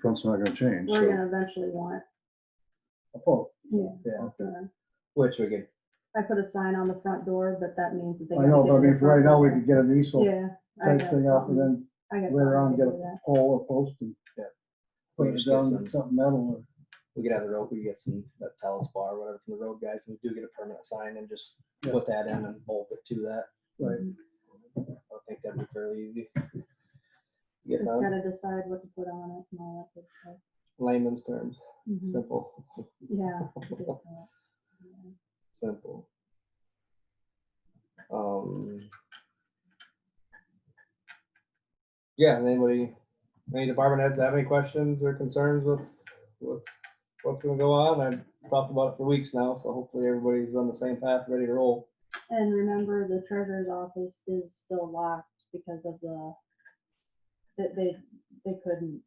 front's not gonna change, We're so. gonna eventually want, a pole, yeah, yeah, uh, okay. which we could, I put a sign on the front door, but that means that they. gotta I know, get but to I the mean, for front right now, we door. could get an easel Yeah. I type got thing up something- and then I got later on something to get do a with that. pole or post and Yeah. put We it just down get with some- something metal or. we get out of the rope, we get some, that talus bar or whatever from the road guys, and we do get a permanent sign and just Yeah. put that in and bolt it to that. Right. I think that'd be fairly easy. Get it Just on gotta decide what to put on it and all that good stuff. layman's terms, Mhm. simple, Yeah. exactly. Yeah. simple. Um. Yeah, and anybody, any department heads have any questions or concerns with, with what's gonna go on? I've talked about it for weeks now, so hopefully everybody's on the same path, ready to roll. And remember, the treasurer's office is still locked because of the, that they, they couldn't.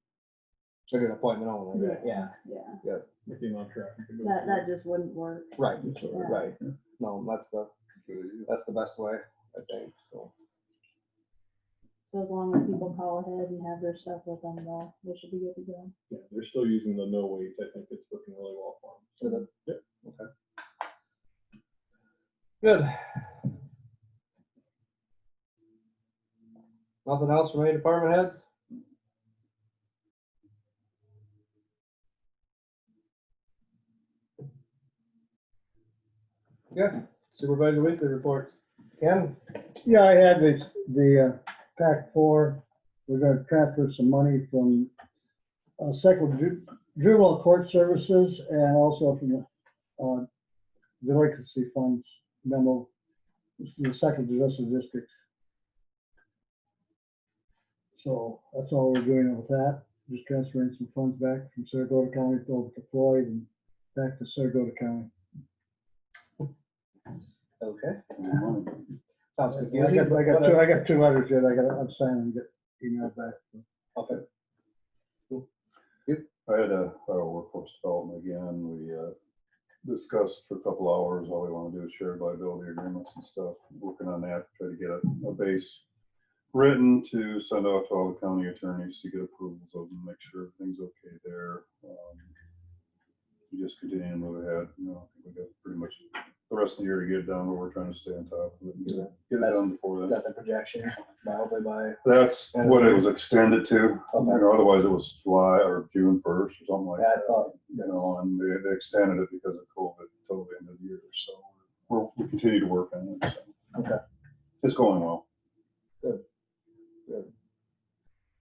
Like an appointment only, right? Yeah, Yeah, with the amount of traffic. that goes that, through. that just wouldn't work. right, Yeah. right. No, that's the, that's the best way, I think, so. So as long as people call ahead and have their stuff with them, though, they should be good to go. Yeah, they're still using the no wait. I think it's working really well for Is them. it? Yep. Okay. Good. Nothing else from any department heads? Yeah, supervisor weekly reports. Ken? Yeah, I had this, the uh, PAC four, we're gonna transfer some money from uh, Second Ju- Juvenile Court Services and also from the uh, Delinquency Funds memo, the Second Judicial District. So that's all we're doing with that, just transferring some funds back from Saragota County over to Floyd and back to Saragota County. Okay. Money. Sounds I got, I got two, I got two letters yet, I gotta, I'm signing, and get email back. Okay. I had a, uh workforce development again, we, uh, discussed for a couple hours, all we wanna do is shared liability agreements and stuff, working on that, try to get a, a base written to send out to all the county attorneys to get approvals of them, make sure everything's okay there. Um, We just continue to move ahead, you know, I think we got pretty much the rest of the year to get it done, but we're trying to stay on top of it and get it, get it done before then. Got the projection, probably by, That's And- what it was extended to, you Okay. know, otherwise it was July or June first or something like I that. thought, You know, and they, they extended it because of COVID till the end of the year, so we're, we continue to work on it, so. Okay. It's going well.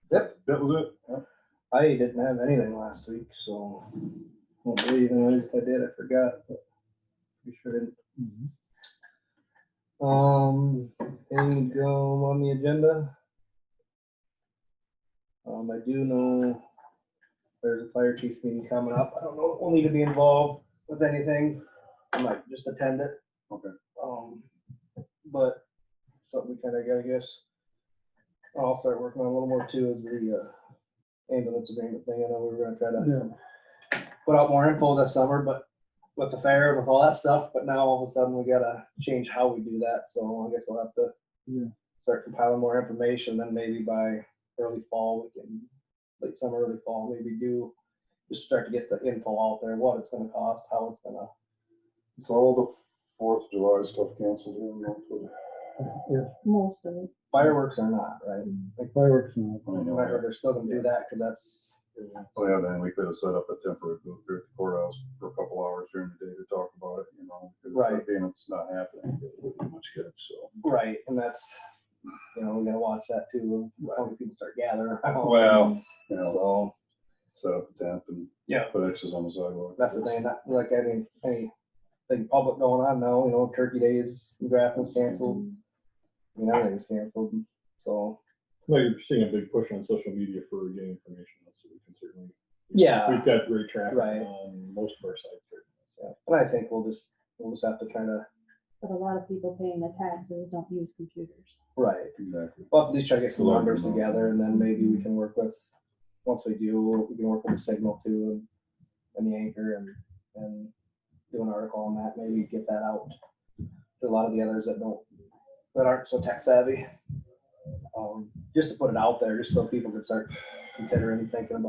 that's, That was it. Yeah. I didn't have anything last week, so. Won't believe, and if I did, I forgot, but we sure didn't. Mm-hmm. Um, and go on the agenda. Um, I do know there's a fire chief's meeting coming up. I don't know, if we'll need to be involved with anything. I might just attend it. Okay. Um, but something we kinda gotta guess. I'll start working on a little more too is the uh, ambulance agreement thing. I know we were gonna try to Yeah. put out more info this summer, but with the fair and with all that stuff, but now all of a sudden we gotta change how we do that, so I guess we'll have to Yeah. start compiling more information, then maybe by early fall, we can, late summer, early fall, maybe do, just start to get the info out there, what it's gonna cost, how it's gonna, It's all the Fourth of July stuff canceled here in Northwood. Most of it. fireworks are not, right? Like fireworks and all. I And know, I heard they're still gonna do that, cause that's, Oh, yeah, then we could have set up a temporary booth here at the courthouse for a couple hours during the day to talk about it, you know. because Right. Again, it's not happening, it wouldn't be much good, so. right, and that's, you know, we gotta watch that too, how many people start gathering. around. Well, You know, So. set up a tent and. Yeah. Put X's on the sidewalk. That's the thing, not like any, anything public going on now, you know, Turkey Day is, Grafton's canceled. You know, everything's canceled, so, Well, you're seeing a big push on social media for getting information, out, so we can certainly. Yeah. We've got great traffic Right. on most of our sites. right now, so. yeah, and I think we'll just, we'll just have to try to, But a lot of people paying the taxes don't use computers. right, Exactly. we'll have to at least try to get some Learn numbers more. together, and then maybe we can work with, once we do, we can work with the signal too, and, and the anchor, and, and do an article on that, maybe get that out to a lot of the others that don't, that aren't so tech savvy. Um, just to put it out there, just so people can start considering, thinking about